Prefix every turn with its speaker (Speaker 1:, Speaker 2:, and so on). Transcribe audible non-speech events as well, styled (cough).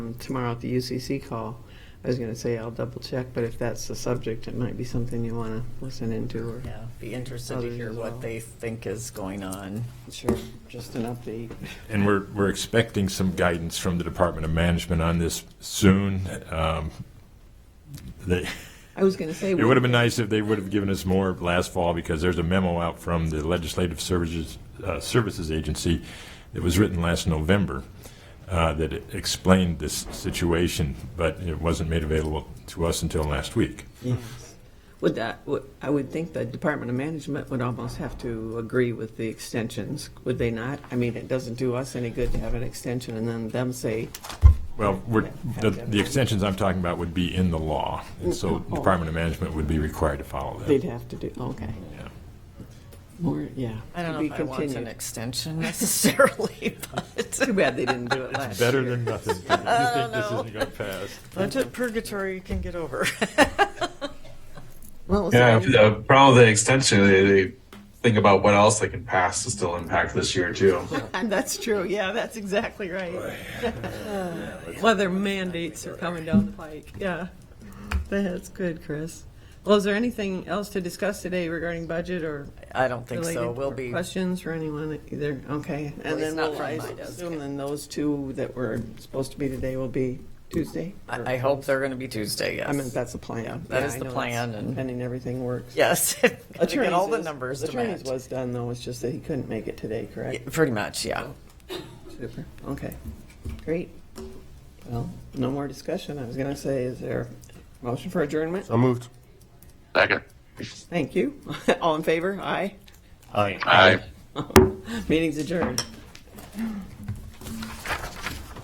Speaker 1: um, tomorrow at the UCC call. I was going to say I'll double check, but if that's the subject, it might be something you want to listen into or.
Speaker 2: Yeah, be interested to
Speaker 1: Others
Speaker 2: hear
Speaker 1: as well.
Speaker 2: what they think is going on.
Speaker 1: Sure. Just an update.
Speaker 3: And we're, we're expecting some guidance from the Department of Management on this soon. Um, They,
Speaker 1: I was going to say.
Speaker 3: it would have been nice if they would have given us more last fall, because there's a memo out from the Legislative Services, uh, Services Agency that was written last November uh, that explained this situation, but it wasn't made available to us until last week.
Speaker 1: Yes. Would that, would- I would think the Department of Management would almost have to agree with the extensions, would they not? I mean, it doesn't do us any good to have an extension and then them say,
Speaker 3: Well, we're, the, the extensions I'm talking about would be in the law, and so Department of Management would be required to follow
Speaker 1: they'd
Speaker 3: that.
Speaker 1: have to do, okay.
Speaker 3: Yeah.
Speaker 1: More, yeah.
Speaker 2: I don't
Speaker 1: to
Speaker 2: know
Speaker 1: be
Speaker 2: if I want an
Speaker 1: continued.
Speaker 2: extension (laughs) necessarily, (laughs)
Speaker 1: Too
Speaker 2: but
Speaker 1: bad they didn't do it last year.
Speaker 3: Better than
Speaker 1: (laughs)
Speaker 3: nothing. You think this isn't going to pass?
Speaker 2: budget purgatory you can get over.
Speaker 1: Well, it's
Speaker 4: Yeah,
Speaker 1: all-
Speaker 4: the problem with the extension, they, they think about what else they can pass to still impact this year too.
Speaker 1: And (laughs) that's true, yeah, that's exactly right. (laughs) Whether mandates are coming down the pike, yeah. That's good, Chris. Well, is there anything else to discuss today regarding budget or
Speaker 2: (laughs) I don't think so.
Speaker 1: related
Speaker 2: We'll be,
Speaker 1: Questions for anyone either, okay.
Speaker 2: Well,
Speaker 1: And
Speaker 2: it's
Speaker 1: then
Speaker 2: not
Speaker 1: we'll
Speaker 2: from
Speaker 1: I
Speaker 2: my desk.
Speaker 1: assume then those two that were supposed to be today will be Tuesday? Or-
Speaker 2: I, I hope they're going to be Tuesday, yes.
Speaker 1: I mean, that's the plan.
Speaker 2: that
Speaker 1: Yeah,
Speaker 2: is
Speaker 1: I
Speaker 2: the
Speaker 1: know that's
Speaker 2: plan and-
Speaker 1: Pending everything works.
Speaker 2: (laughs) Yes. (laughs) Gotta Get all the
Speaker 1: is-
Speaker 2: numbers to
Speaker 1: Attorney's
Speaker 2: match.
Speaker 1: was done though, it's just that he couldn't make it today, correct?
Speaker 2: Yeah, Pretty much, yeah.
Speaker 1: Super, okay, great. Well, no more discussion, I was gonna say, is there a motion for adjournment?
Speaker 5: So moved.
Speaker 4: Second.
Speaker 1: (laughs) Thank you, all in favor, aye,
Speaker 5: Aye.
Speaker 4: Aye.
Speaker 1: meeting's adjourned.